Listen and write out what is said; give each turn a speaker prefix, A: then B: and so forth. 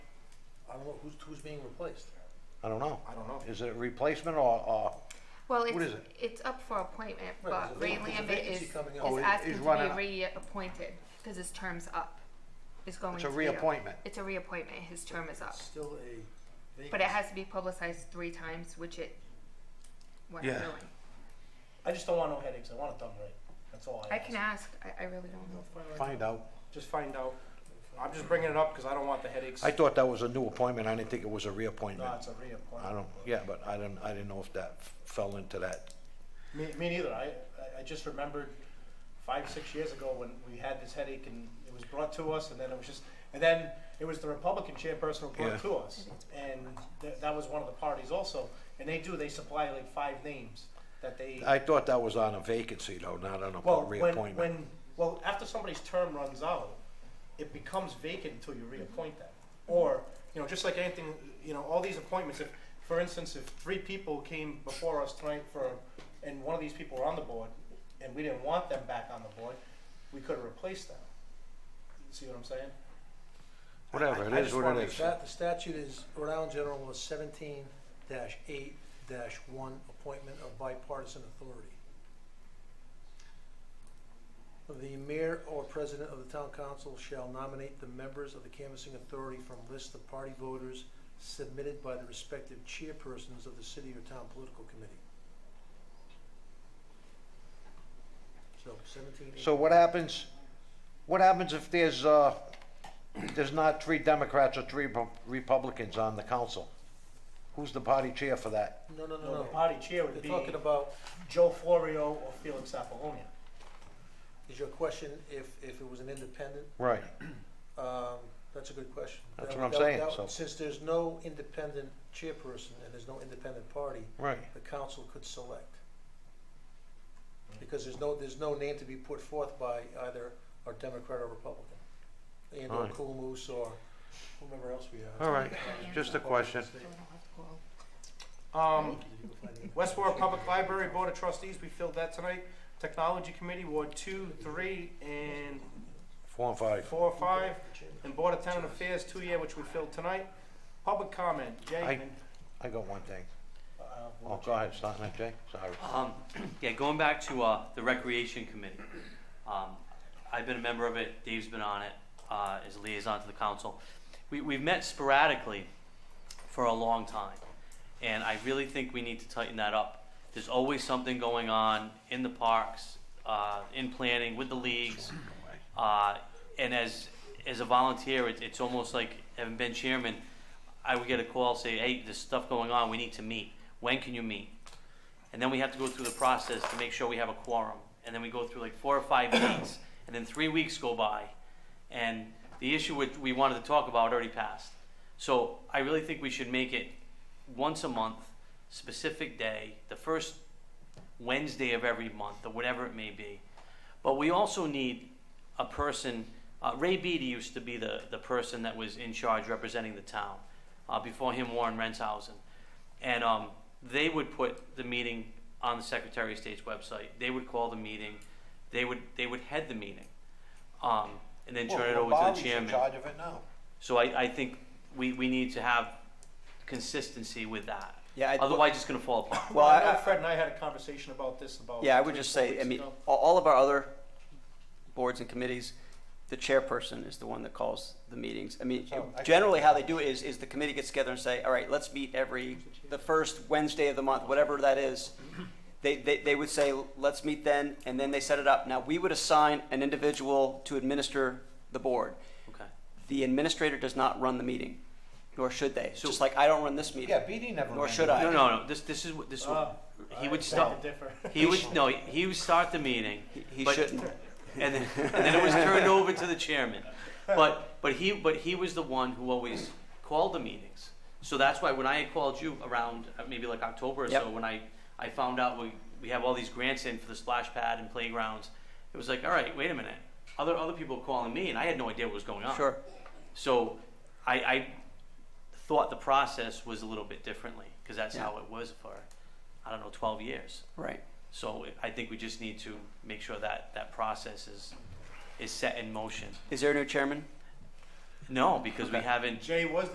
A: don't know, who's, who's being replaced?
B: I don't know.
A: I don't know.
B: Is it replacement or, or,
C: Well,
B: What is
C: it's,
B: it?
C: it's up for appointment,
A: Right,
C: but
A: there's a
C: Ray
A: vac- there's a
C: Lambert is,
A: vacancy
C: is
A: coming up.
B: Oh, it-
C: asking
B: he's
C: to
B: running
C: be
B: up.
C: reappointed, cause his term's up, is going
B: it's
C: to
B: a
C: be
B: reappointment?
C: It's a reappointment, his term is up,
A: It's Still a.
C: but it
A: vacancy.
C: has to be publicized three times, which it, what
B: Yeah.
C: doing.
D: I just don't want no headaches. I want it done right. That's all I
C: I
D: ask.
C: can ask, I, I really don't know.
B: Find out.
D: Just find out. I'm just bringing it up because I don't want the headaches.
B: I thought that was a new appointment. I didn't think it was a
D: No,
B: reappointment.
D: it's a
B: I
D: reappointment.
B: don't, yeah, but I didn't, I didn't know if that f- fell into that.
D: Me, me neither. I, I- I just remembered five, six years ago when we had this headache and it was brought to us and then it was just, and then it was the Republican chairperson who brought
B: Yeah.
D: it to us. And tha- that was one of the parties also. And they do, they supply like five names that they,
B: I thought that was on a vacancy though, not on
D: well,
B: a
D: when,
B: reappointment.
D: when, well, after somebody's term runs out, it becomes vacant until you reappoint them. Or, you know, just like anything, you know, all these appointments, if, for instance, if three people came before us tonight for, and one of these people were on the board, and we didn't want them back on the board, we could have replaced them. You See what I'm saying?
B: Whatever,
D: I- I
B: it is
D: just
B: what
D: wanna
B: it
D: make
B: is.
A: Stat- The statute is Rhode Island General Law seventeen eight one, appointment of bipartisan authority. The mayor or president of the town council shall nominate the members of the canvassing authority from list of party voters submitted by the respective chairpersons of the city or town political committee. So seventeen eight.
B: So what happens, what happens if there's, uh, there's not three Democrats or three Repu- Republicans on the council? Who's the party chair for that?
A: No, no,
D: No,
A: no,
D: the
A: no.
D: party chair would
A: They're
D: be
A: talking about
D: Joe Florio or Felix Apollonia.
A: Is your question if, if it was an independent?
B: Right.
A: Um, that's a good question.
B: That's
A: That-
B: what I'm
A: that-
B: saying,
A: that-
B: so-
A: Since there's no independent chairperson and there's no independent party,
B: Right.
A: the council could select. Because there's no, there's no name to be put forth by either a Democrat or Republican. And or
B: Alright.
A: Coolmoose or whomever else we have.
B: All right, just a question.
C: So I don't have to call.
D: Um, Westboro Public Library Board of Trustees, we filled that tonight. Technology Committee, Ward two, three, and
B: Four and five.
D: four, five. And Board of Tenant Affairs, two-year, which we filled tonight. Public comment,
B: I-
D: Jay. and-
B: I got one thing.
D: Uh,
B: Oh, go ahead, starting at Jay, sorry.
E: Um, yeah, going back to, uh, the Recreation Committee. Um, I've been a member of it, Dave's been on it, uh, as a liaison to the council. We, we've met sporadically for a long time, and I really think we need to tighten that up. There's always something going on in the parks, uh, in planning, with the leagues. Uh, and as, as a volunteer, it's, it's almost like, having been chairman, I would get a call, say, hey, there's stuff going on, we need to meet. When can you meet? And then we have to go through the process to make sure we have a quorum. And then we go through like four or five weeks, and then three weeks go by. And the issue which we wanted to talk about already passed. So I really think we should make it once a month, specific day, the first Wednesday of every month, or whatever it may be. But we also need a person, uh, Ray Beatty used to be the, the person that was in charge representing the town. Uh, before him, Warren Renshausen. And um, they would put the meeting on the Secretary of State's website. They would call the meeting. They would, they would head the meeting. Um, and then turn it over to the
B: Bobby's in
E: chairman.
B: charge of it now.
E: So I, I think we, we need to have consistency with that.
F: Yeah, I,
E: Otherwise, it's going to fall apart.
F: well,
D: Well, I know
F: I,
D: Fred and I had a conversation about this about.
F: yeah, I would
D: three,
F: just
D: four
F: say, I
D: weeks
F: mean,
D: ago.
F: all, all of our other boards and committees, the chairperson is the one that calls the meetings. I mean,
B: So, Oh, I-
F: generally how they do it is, is the committee gets together and say, all right, let's meet every, the first Wednesday of the month, whatever that is. They, they, they would say, let's meet then, and then they set it up. Now, we would assign an individual to administer the board.
E: Okay.
F: The administrator does not run the meeting, nor should they.
E: So-
F: Just like I don't run this meeting.
B: Yeah, BD never.
F: Nor
B: ran
F: should
B: it.
F: I.
E: No, no, no. This, this is what this. is
D: Uh,
E: what he
D: I
E: would
D: beg
E: stop.
D: to differ.
E: He would no. He would start the meeting,
F: He- He
E: But-
F: shouldn't.
E: and then, and then it was turned over to the chairman. But but he but he was the one who always called the meetings. So that's why when I had called you around uh, maybe like October or so,
F: Yep.
E: when I I found out we we have all these grants in for the splash pad and playgrounds, it was like all right, wait a minute. Other other people were calling me, and I had no idea what was going on.
F: Sure.
E: So I, I thought the process was a little bit differently because that's
F: Yeah.
E: how it was for, I don't know, 12 years.
F: Right.
E: So I think we just need to make sure that that process is, is set in motion.
F: Is there a new chairman?
E: No, because we
F: Okay.
E: haven't
D: Jay was